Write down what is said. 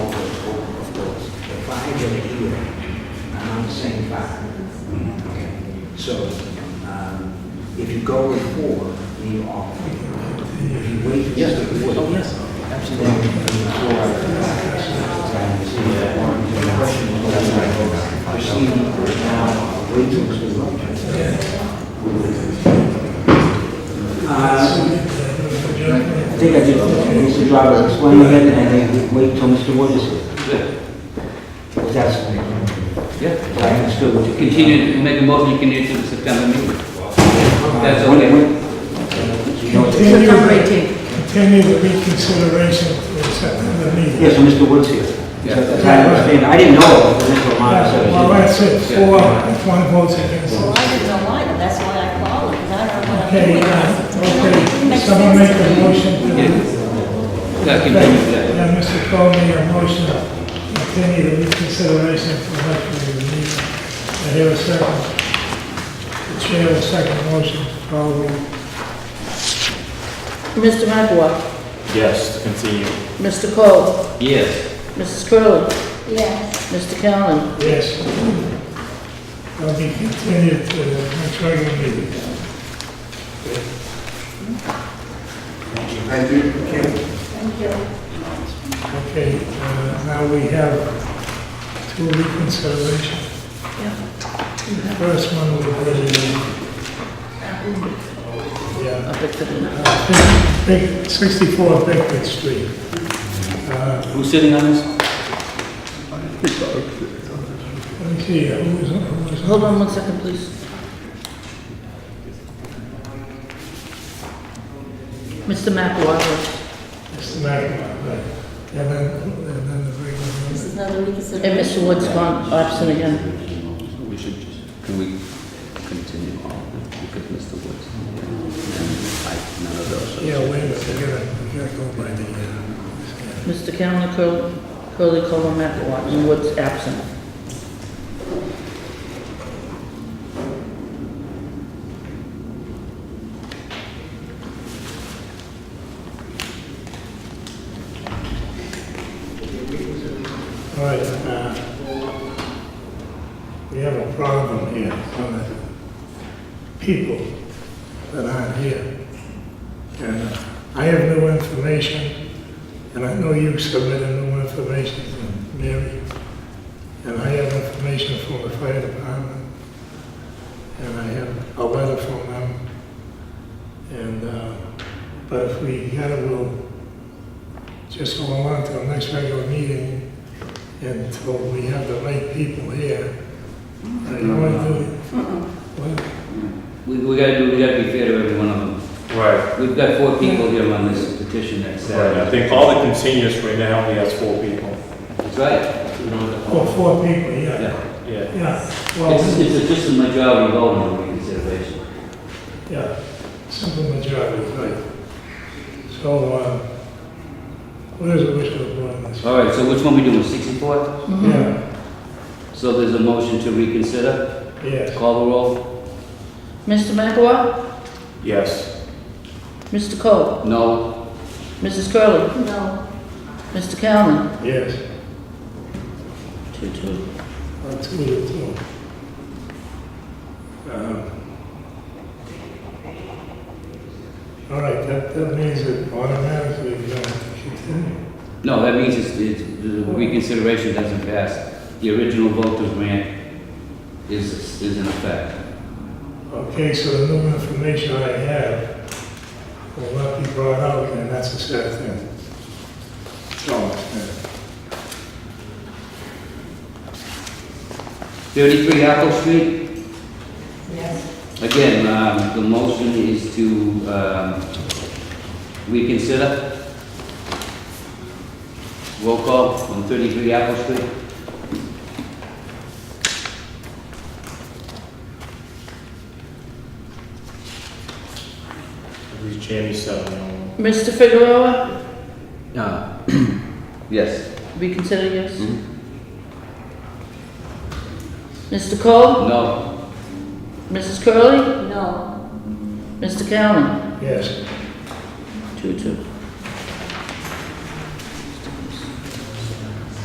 So um, if you go with four, leave off. If you wait for Yes, this to wait, oh, yes, absolutely. proceed now, wait till it's been voted. Uh, I think I did, Mr. Driver explained it, and I think wait till Mr. Wood is here. Because that's, Yeah. I understood what you. Continue, to make a motion, continue to the September meeting. That's When- okay. when- You know, it's- Continue September the- 18th. Continue the reconsideration for September meeting. Yes, so Mr. Woods here. Yeah. As I understand, I didn't know if Mr. Romano said Well, it. that's it, four, if one votes against Well, it. I didn't like it, that's why I called, because I don't know what I'm Okay, doing. uh, okay, Makes someone sense make to a me. motion. to- Yeah. Yeah, continue, yeah. Yeah, Mr. Cole made a motion, to continue the reconsideration for September meeting. I hear a second. The chair will second motion, call the roll. Mr. McElroy, Yes, to continue. Mr. Cole, Yes, Mrs. Curley, Yes, Mr. Callen, Yes. I'll be continued to the uh, next regular meeting. Thank you. thank you. Okay, uh, now we have two reconsideration. First one was the, yeah, I picked it up. uh, Big- 64 Bickford Street. Uh, who's sitting on this? Let me see, who was, who was, Hold on one second, please. Mr. McElroy Mr. McNamara, right. And then, and then the regular This one. is another reconsideration. and Mr. Wood's gone absent again. We should just, can we continue on because Mr. Woods? and I, none of those. Yeah, wait a minute, we gotta, we gotta go by the, uh, Mr. Callen, Curl- Curley, Cole, and McElroy, and Wood's absent. All right, uh, we have a problem here, on the people that aren't here. And I have new information, and I know you submitted new information to Mary, and I have information from the fire department, and I have a letter from them. And, uh, but if we gotta, we'll just hold on till next regular meeting, until we have the right people here. Uh, You want to do it? What? We, we gotta do, we gotta be fair to every one of them. Right. We've got four people here on this petition that's, I uh, think all the continuous right now, we has four people. that's right. Oh, four people, yeah. Yeah. Yeah. Yeah, It's, well, it's just a majority vote on the reconsideration. yeah, simple majority, right. So, uh, what is the wish of the board on this? All right, so which one we doing, sixty-four? Yeah, So there's a motion to reconsider, yes, call the roll? Mr. McElroy, Yes. Mr. Cole, No, Mrs. Curley, No, Mr. Callen, yes. two, two. Uh, Two to two. Um, All right, that, that means it automatically, uh, you know, continue. No, that means it's, it's, the reconsideration doesn't pass. The original vote to grant is, is in effect. Okay, so the new information I have will not be brought out, and that's a sad thing. So, uh, Thirty-three Apple Street, yes, again, um, the motion is to, um, reconsider. Roll call on thirty-three Apple Street. Who's Jamie Savignon? Mr. Figueroa, Uh, yes. reconsider, yes? Mhm. Mr. Cole, No, Mrs. Curley, no, Mr. Callen, yes, two, two.